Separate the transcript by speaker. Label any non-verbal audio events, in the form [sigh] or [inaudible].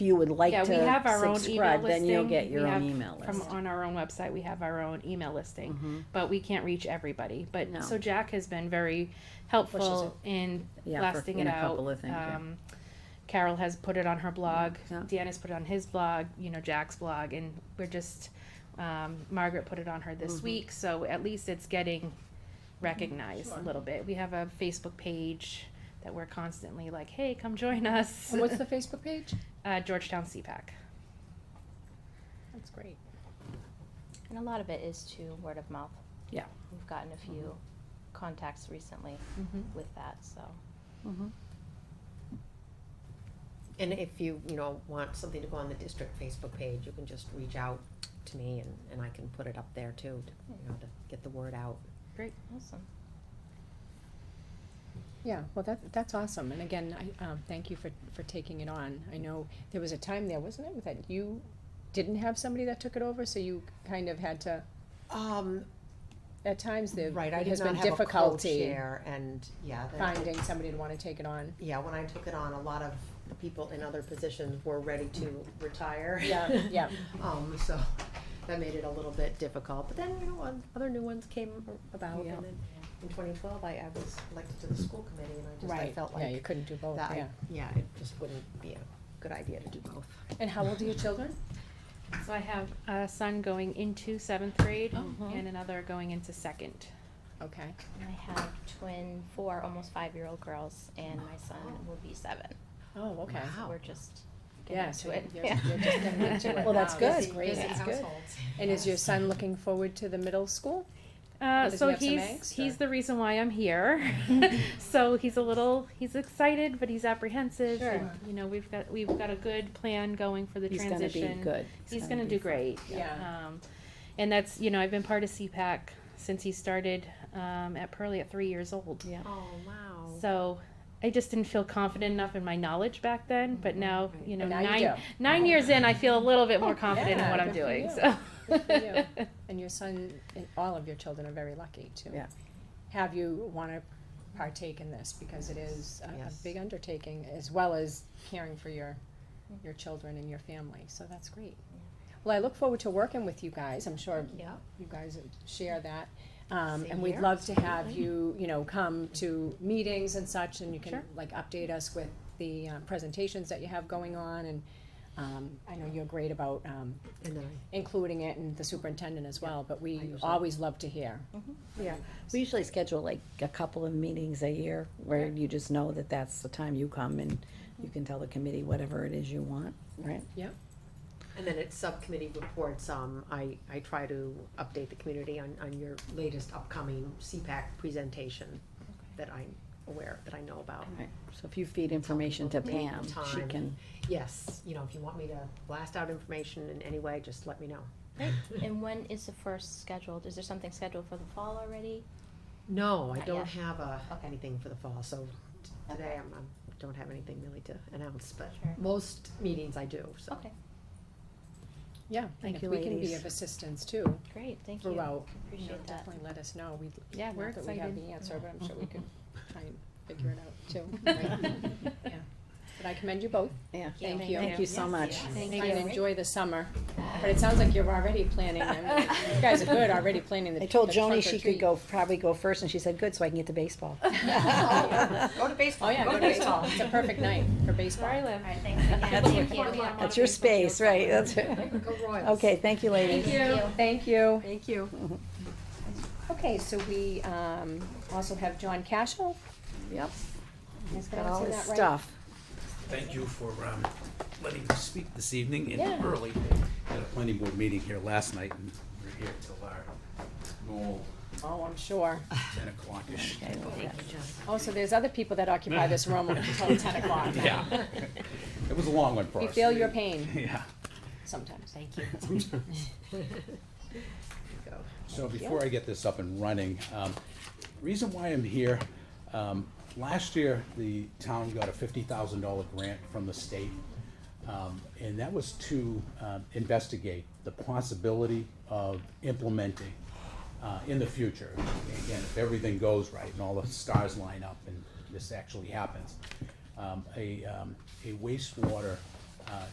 Speaker 1: you would like
Speaker 2: Yeah,
Speaker 1: to
Speaker 2: we have our own email
Speaker 1: subscribe, then you'll
Speaker 2: listing.
Speaker 1: get
Speaker 2: We
Speaker 1: your own
Speaker 2: have
Speaker 1: email list.
Speaker 2: From, on our own website, we have our own email listing,
Speaker 1: Mhm.
Speaker 3: Mm-hmm.
Speaker 2: but we can't reach everybody. But,
Speaker 1: No.
Speaker 2: so Jack has been very helpful in
Speaker 1: Yeah, for-
Speaker 2: blasting
Speaker 1: in
Speaker 2: it
Speaker 1: a
Speaker 2: out.
Speaker 1: couple of things, yeah.
Speaker 2: Um, Carol has put it on her blog,
Speaker 1: Yeah.
Speaker 2: Dan has put it on his blog, you know, Jack's blog, and we're just, um, Margaret put it on her this
Speaker 3: Mm-hmm.
Speaker 1: Mhm.
Speaker 2: week, so at least it's getting recognized a
Speaker 3: Sure.
Speaker 2: little bit. We have a Facebook page that we're constantly like, hey, come join us.
Speaker 3: And what's
Speaker 2: [laughs]
Speaker 3: the Facebook page?
Speaker 2: Uh, Georgetown CPAC.
Speaker 3: That's great.
Speaker 4: And a lot of it is to word of mouth.
Speaker 1: Yeah.
Speaker 4: We've gotten a
Speaker 3: Mm-hmm.
Speaker 4: few contacts recently
Speaker 2: Mm-hmm.
Speaker 4: with that, so.
Speaker 1: Mhm.
Speaker 5: And if you, you know, want something to go on the district Facebook page, you can just reach out to me and, and I can put it up there too, to, you know, to get the word out.
Speaker 4: Awesome.
Speaker 3: Yeah, well, that, that's awesome, and again, I, um, thank you for, for taking it on. I know there was a time there, wasn't it, that you didn't have somebody that took it over, so you kind of had to,
Speaker 5: Um,
Speaker 3: at times there
Speaker 5: right, I did
Speaker 3: has been
Speaker 5: not have a
Speaker 3: difficulty
Speaker 5: co-chair and, yeah, that-
Speaker 3: finding somebody to wanna take it on.
Speaker 5: yeah, when I took it on, a lot of the people in other positions were ready to retire.
Speaker 3: Yeah, yeah,
Speaker 5: [laughs] Um, so that made it a little bit difficult, but then, you know, on- other new ones came about
Speaker 3: Yeah.
Speaker 5: and then in twenty twelve, I, I was elected to the school committee and I just, I
Speaker 3: right,
Speaker 5: felt
Speaker 3: yeah, you
Speaker 5: like
Speaker 3: couldn't do both,
Speaker 5: that,
Speaker 3: yeah.
Speaker 5: I- yeah, it just wouldn't be a good idea to do both.
Speaker 3: And how old are your
Speaker 5: [laughs]
Speaker 3: children?
Speaker 2: So I have a son going into seventh grade
Speaker 3: Mhm.
Speaker 2: and another going into second.
Speaker 3: Okay,
Speaker 4: And I have twin, four, almost five-year-old girls, and my son will be seven.
Speaker 3: oh, okay.
Speaker 4: So
Speaker 5: Wow.
Speaker 4: we're just
Speaker 3: Yeah,
Speaker 4: getting
Speaker 3: so
Speaker 4: to it.
Speaker 3: you're- you're just
Speaker 4: [laughs]
Speaker 3: getting
Speaker 5: [laughs]
Speaker 3: into it. Well, that's
Speaker 4: Um,
Speaker 3: good.
Speaker 4: busy-
Speaker 3: Great.
Speaker 4: busy
Speaker 3: That's
Speaker 4: house.
Speaker 3: good. And is your son looking forward to the middle school?
Speaker 2: Uh,
Speaker 3: Oh, Does he
Speaker 2: so
Speaker 3: have some
Speaker 2: he's
Speaker 3: angst,
Speaker 2: he's
Speaker 3: or?
Speaker 2: the reason why I'm
Speaker 3: [laughs]
Speaker 2: here. [laughs] so he's a little he's excited, but he's apprehensive.
Speaker 3: Sure.
Speaker 2: And, you know, we've got we've got a good plan going for the
Speaker 1: He's gonna
Speaker 2: transition.
Speaker 1: be good.
Speaker 2: He's gonna do
Speaker 1: be fine.
Speaker 2: great.
Speaker 3: Yeah.
Speaker 2: Um, and that's you know I've been part of CPAC since he started um, at Pearly at three years old.
Speaker 1: Yeah.
Speaker 5: Oh, wow.
Speaker 2: So I just didn't feel confident enough in my knowledge back then, but now you know
Speaker 3: Mm-hmm. And now you
Speaker 2: nine
Speaker 3: do.
Speaker 2: nine years in, I feel a little bit more confident
Speaker 3: Oh, yeah,
Speaker 2: in what I'm
Speaker 3: good for
Speaker 2: doing.
Speaker 3: you.
Speaker 2: So.
Speaker 3: Good for you.
Speaker 2: [laughs]
Speaker 3: And your son, and all of your children are very lucky to
Speaker 1: Yeah.
Speaker 3: have you wanna partake in this, because it is a, a
Speaker 5: Yes.
Speaker 3: big undertaking, as well as caring for your, your children and your family, so that's great. Well, I look forward to working with you guys, I'm sure
Speaker 5: Yeah.
Speaker 3: you guys share that, um,
Speaker 5: Same
Speaker 3: and we'd
Speaker 5: here.
Speaker 3: love to have you, you know, come to meetings and such, and you can,
Speaker 2: Sure.
Speaker 3: like, update us with the, uh, presentations that you have going on, and, um, I know you're great about, um,
Speaker 5: And then I
Speaker 3: including it and the superintendent as well, but
Speaker 5: I
Speaker 3: we
Speaker 5: usually-
Speaker 3: always love to hear.
Speaker 1: We usually schedule like a couple of meetings a year where you just know that that's the time you come and you can tell the committee whatever it is you want, right?
Speaker 5: And then at subcommittee reports, um, I, I try to update the community on, on your latest upcoming CPAC presentation that I'm aware, that I know about.
Speaker 1: Right. So if you feed information to
Speaker 5: people
Speaker 1: Pam,
Speaker 5: date,
Speaker 1: she
Speaker 5: time.
Speaker 1: can,
Speaker 5: Yes, you know, if you want me to blast out information in any way, just let me know.
Speaker 4: And when is the first scheduled? Is there something scheduled for the fall already?
Speaker 5: [laughs] No, I
Speaker 4: Not
Speaker 5: don't
Speaker 4: yet.
Speaker 5: have a,
Speaker 4: Okay.
Speaker 5: anything for the fall, so t- today I'm, I'm, don't have anything really to announce, but
Speaker 4: Sure.
Speaker 5: most meetings I do, so.
Speaker 4: Okay,
Speaker 3: Yeah, and
Speaker 1: Thank
Speaker 3: if
Speaker 1: you,
Speaker 3: we can be
Speaker 1: ladies.
Speaker 3: of assistance too
Speaker 4: great, thank you.
Speaker 3: throughout, you know,
Speaker 4: Appreciate that.
Speaker 3: definitely let us know. We'd,
Speaker 2: Yeah,
Speaker 3: not
Speaker 2: we're
Speaker 3: that we have
Speaker 2: excited. Mm-hmm.
Speaker 3: the answer, but I'm sure we could try and figure it out
Speaker 2: [laughs]
Speaker 3: too. Right. [laughs] Yeah. But I commend you both.
Speaker 1: yeah.
Speaker 4: Thank
Speaker 3: Thank
Speaker 4: you.
Speaker 3: you.
Speaker 1: Thank you so
Speaker 4: Yes,
Speaker 1: much.
Speaker 4: yes.
Speaker 2: Thank
Speaker 3: Try and
Speaker 2: you.
Speaker 3: enjoy the summer, but it sounds like you're already planning. I mean, You guys are good, already planning the
Speaker 1: I told
Speaker 3: the trunk
Speaker 1: Joni
Speaker 3: or
Speaker 1: she
Speaker 3: treat.
Speaker 1: could go,
Speaker 3: [laughs]
Speaker 1: probably go first, and she said, good, so I can get to
Speaker 2: [laughs]
Speaker 1: baseball.
Speaker 5: Go to baseball.
Speaker 3: Oh, yeah, go to baseball. It's a perfect night for baseball.
Speaker 2: Where I live.
Speaker 4: All right, thanks again.
Speaker 1: That's
Speaker 4: Thank
Speaker 1: what-
Speaker 4: you.
Speaker 2: That's
Speaker 4: Yeah.
Speaker 1: That's your space, right, that's right.
Speaker 5: Go Royals.
Speaker 1: Okay, thank you, ladies.
Speaker 4: Thank you.
Speaker 3: Thank you.
Speaker 5: Thank you.
Speaker 3: [laughs] Okay, so we um, also have John Cashel.
Speaker 1: Yep,
Speaker 3: He's
Speaker 1: got all this stuff.
Speaker 6: Thank you for um, letting me speak this evening and
Speaker 3: Yeah.
Speaker 6: early. Had a planning board meeting here last night and we're here till our normal
Speaker 3: Oh, I'm sure.
Speaker 6: ten o'clock-ish.
Speaker 1: Okay, well, that-
Speaker 3: Also, there's other people that occupy this room until ten o'clock.
Speaker 6: Yeah. [laughs] It was a long one for us.
Speaker 3: We feel your pain
Speaker 6: [laughs] Yeah.
Speaker 3: sometimes.
Speaker 5: Thank you. Go.
Speaker 6: So before I get this up and running, um, reason why I'm here, um, last year, the town got a fifty thousand dollar grant from the state. Um, and that was to, um, investigate the possibility of implementing, uh, in the future. Again, if everything goes right and all the stars line up and this actually happens, um, a, um, a wastewater, uh,